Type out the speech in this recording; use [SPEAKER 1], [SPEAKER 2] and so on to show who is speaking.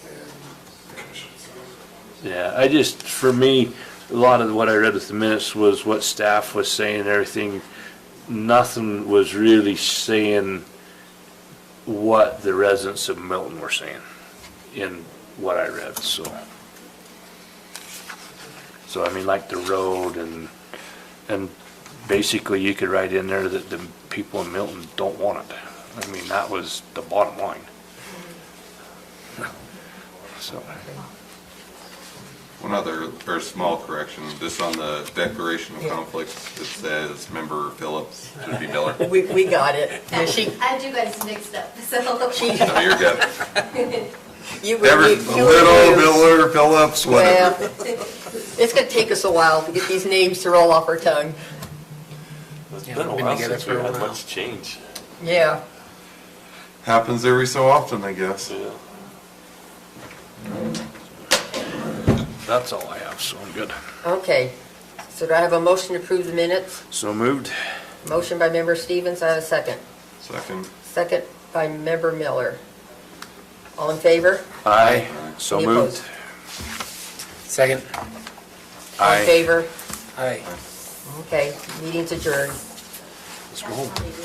[SPEAKER 1] Yeah, I just, for me, a lot of what I read with the minutes was what staff was saying and everything. Nothing was really saying what the residents of Milton were saying in what I read, so. So I mean, like the road and, and basically you could write in there that the people in Milton don't want it. I mean, that was the bottom line. So,
[SPEAKER 2] One other, or small correction, just on the declaration of conflicts, it says member Phillips, should be Miller.
[SPEAKER 3] We, we got it. And she,
[SPEAKER 4] I had you guys mixed up, so.
[SPEAKER 2] No, you're good.
[SPEAKER 3] you were.
[SPEAKER 2] Ever,
[SPEAKER 3] you- you were
[SPEAKER 2] Little,
[SPEAKER 3] used.
[SPEAKER 2] Miller, Phillips,
[SPEAKER 3] Well,
[SPEAKER 2] whatever.
[SPEAKER 3] it's gonna take us a while to get these names to roll off our tongue.
[SPEAKER 5] It's been a while since we had much change.
[SPEAKER 3] Yeah.
[SPEAKER 2] Happens every so often, I guess.
[SPEAKER 1] that's all I have, so I'm good.
[SPEAKER 3] Okay. So do I have a motion to approve the minutes?
[SPEAKER 1] So moved.
[SPEAKER 3] Motion by member Stevens, I have a second.
[SPEAKER 2] Second.
[SPEAKER 3] Second by member Miller. All in favor?
[SPEAKER 1] Aye. So
[SPEAKER 3] Any
[SPEAKER 1] moved.
[SPEAKER 3] opposed?
[SPEAKER 5] Second.
[SPEAKER 3] All in
[SPEAKER 1] Aye.
[SPEAKER 3] favor?
[SPEAKER 5] Aye.
[SPEAKER 3] Okay, meeting's adjourned.
[SPEAKER 1] Let's go home.